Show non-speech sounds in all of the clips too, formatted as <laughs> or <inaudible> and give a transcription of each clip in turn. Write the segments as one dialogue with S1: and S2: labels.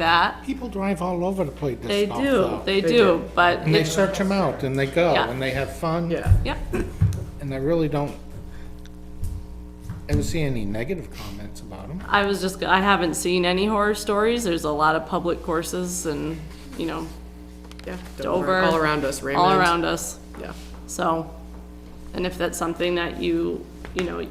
S1: that.
S2: People drive all over to play
S1: They
S2: disc golf,
S1: do,
S2: though.
S1: they do, but,
S2: And they
S1: it-
S2: search them out, and they go,
S1: Yeah.
S2: and they have fun.
S3: Yeah.
S1: yeah,
S2: And I really don't ever see any negative comments about them.
S1: I was just, I haven't seen any horror stories. There's a lot of public courses and, you know,
S3: Yeah,
S1: Dover.
S3: All around us, Raymond.
S1: all around us.
S3: Yeah.
S1: So, and if that's something that you, you know,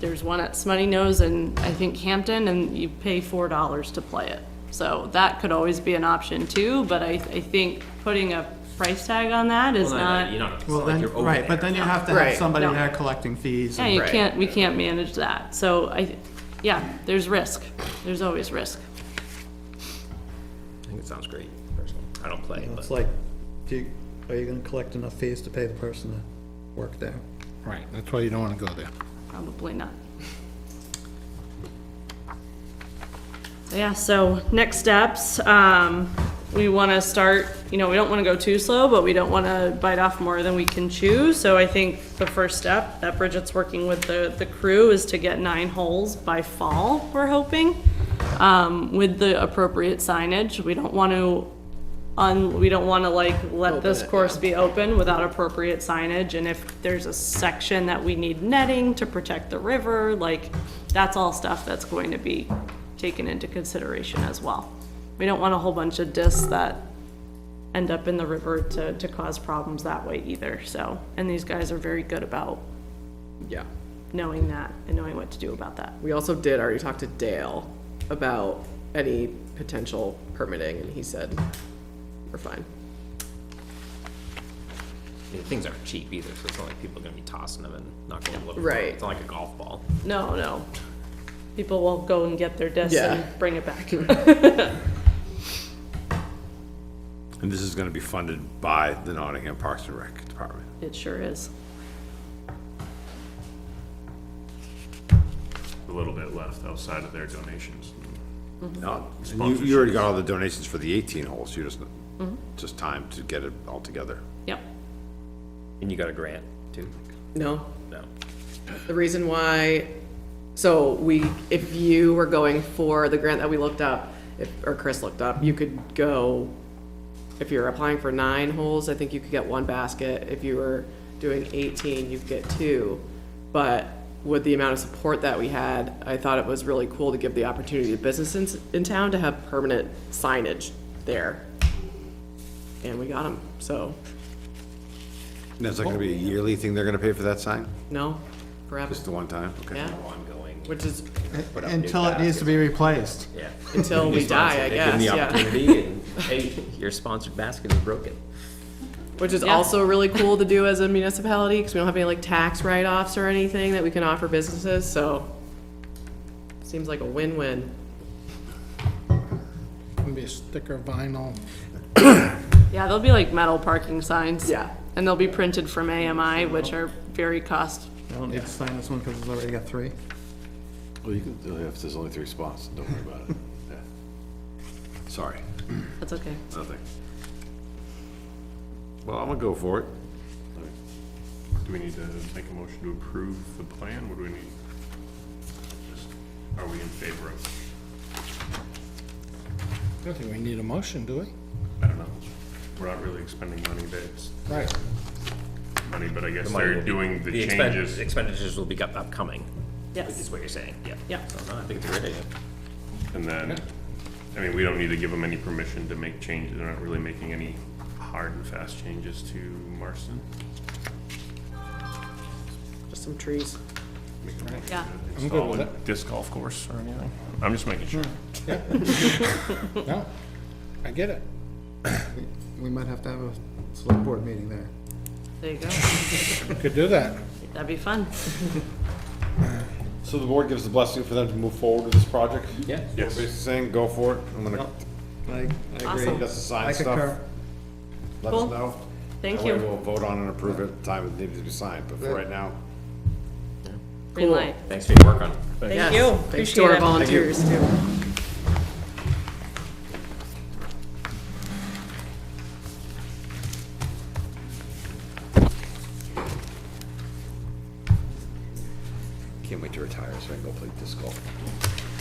S1: there's one at Smutty Nose and I think Hampton, and you pay four dollars to play it. So that could always be an option too, but I, I think putting a price tag on that is
S4: Well, not, you're
S1: not,
S4: not, it's
S5: Well,
S4: not like
S5: then,
S4: you're over
S5: right, but
S4: there.
S5: then you have to
S3: Right.
S5: have somebody
S1: No.
S5: there collecting fees.
S1: yeah,
S5: and-
S1: you
S3: Right.
S1: can't, we can't manage that. So I, yeah, there's risk. There's always risk.
S4: I think it sounds great, personally. I don't play, but
S6: It's like, do you, are you gonna collect enough fees to pay the person to work there?
S2: Right, that's why you don't want to go there.
S1: Probably not. So, Yeah, so next steps, um, we wanna start, you know, we don't wanna go too slow, but we don't wanna bite off more than we can chew. So I think the first step that Bridget's working with the, the crew is to get nine holes by fall, we're hoping. Um, with the appropriate signage. We don't wanna un, we don't wanna like let this
S3: it, yeah.
S1: course be open without appropriate signage. And if there's a section that we need netting to protect the river, like, that's all stuff that's going to be taken into consideration as well. We don't want a whole bunch of discs that end up in the river to, to cause problems that way either, so. And these guys are very good about
S3: Yeah.
S1: knowing that and knowing what to do about that.
S3: We also did already talk to Dale about any potential permitting, and he said, we're fine.
S4: I mean, things aren't cheap either, so it's not like people are gonna be tossing them and not going to look. for it.
S3: Right.
S4: It's not like a golf ball.
S1: No, no. People will go and get their discs
S3: Yeah.
S1: and bring it
S3: <laughs>
S1: back.
S7: And this is gonna be funded by the Nottingham Parks and Rec Department.
S1: It sure is.
S8: a little bit left outside of their donations.
S7: No, you, you already got all the donations for the eighteen holes, you just, just time to get it all together.
S1: Yep.
S4: And you got a grant, too?
S3: No,
S4: No.
S3: the reason why, so we, if you were going for the grant that we looked up, if, or Chris looked up, you could go, if you're applying for nine holes, I think you could get one basket. If you were doing eighteen, you could get two. But with the amount of support that we had, I thought it was really cool to give the opportunity to businesses in town to have permanent signage there. And we got them, so,
S7: And is that gonna be a yearly thing they're gonna pay for that sign?
S3: no, forever,
S7: Just the one time? Okay.
S3: yeah,
S4: Ongoing,
S3: which is
S5: Until it needs to be replaced.
S4: yeah.
S3: until we die, I guess,
S4: Given the
S3: yeah.
S4: opportunity, and, hey, your sponsored basket is broken.
S3: Which is
S1: Yeah.
S3: also really cool to do as a municipality, because we don't have any like tax write-offs or anything that we can offer businesses, so. Seems like a win-win.
S2: Maybe a sticker vinyl.
S1: Yeah, they'll be like metal parking signs.
S3: Yeah.
S1: And they'll be printed from AMI, which are very cost.
S5: I don't need to sign this one because it's already got three.
S7: Well, you can, uh, if there's only three spots, don't worry about <laughs> it. Sorry,
S1: That's okay.
S7: nothing. Well, I'm gonna go for it.
S8: Do we need to make a motion to approve the plan? What do we need? Just, Are we in favor of?
S2: I don't think we need a motion, do we?
S8: I don't know. We're not really expending money, but it's
S2: Right.
S8: money, but I guess
S4: The money will
S8: they're
S4: be-
S8: doing the
S4: expen-
S8: changes.
S4: Expenditures will be up- upcoming, is
S1: Yes.
S4: what you're saying, yeah.
S1: Yeah.
S4: So, no, I think it's a great idea.
S8: And then, I mean, we don't need to give them any permission to make changes. They're not really making any hard and fast changes to Marston.
S3: Just some trees.
S1: Yeah.
S2: I'm good with
S8: Solid
S2: it.
S8: Disc golf course or anything. Hmm. I'm just making sure.
S2: No, I get it.
S5: We might have to have a select board meeting there.
S1: There you go.
S2: We Could do that.
S1: That'd be fun.
S7: So the board gives the blessing for them to move forward with this project?
S4: Yeah.
S8: Yes.
S7: Basically saying, go for it, I'm gonna,
S5: I, I agree.
S1: Awesome.
S7: that's the sign
S5: I
S7: stuff,
S5: concur.
S7: let
S1: Cool.
S7: us know.
S1: Thank
S7: That way
S1: you.
S7: we'll vote on and approve it, at the time it needs to be signed, but for right now,
S1: Green light.
S4: Thanks for your work on it.
S1: Thank
S3: Yes.
S1: you.
S3: Thanks to our
S1: Appreciate it.
S3: volunteers too.
S7: can't wait to retire so I can go play disc golf.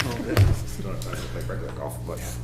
S7: Don't have time to play regular golf, but.